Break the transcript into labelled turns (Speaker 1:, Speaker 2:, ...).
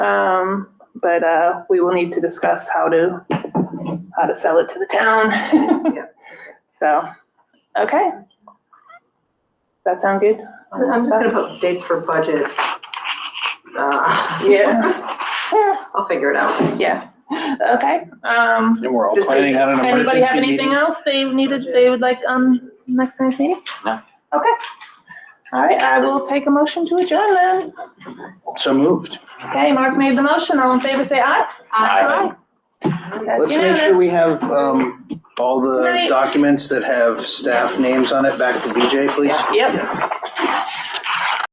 Speaker 1: Um, But, uh, we will need to discuss how to, how to sell it to the town. So, okay. That sound good?
Speaker 2: I'm just gonna put dates for budget. Uh,
Speaker 1: Yeah,
Speaker 2: I'll figure it out.
Speaker 1: yeah, okay, um.
Speaker 3: And we're all
Speaker 1: Does
Speaker 3: planning on an
Speaker 1: Does
Speaker 3: emergency meeting.
Speaker 1: Anybody have anything else they needed, they would like, um, next night's meeting?
Speaker 3: No.
Speaker 1: Okay. All right, I will take a motion to adjourn then.
Speaker 3: So moved.
Speaker 1: Okay, Mark made the motion, all in favor, say aye.
Speaker 3: Aye.
Speaker 1: That's
Speaker 3: Let's make sure
Speaker 1: unanimous.
Speaker 3: we have, um, all the
Speaker 1: Right.
Speaker 3: documents that have staff names on it back to BJ, please.
Speaker 1: Yep.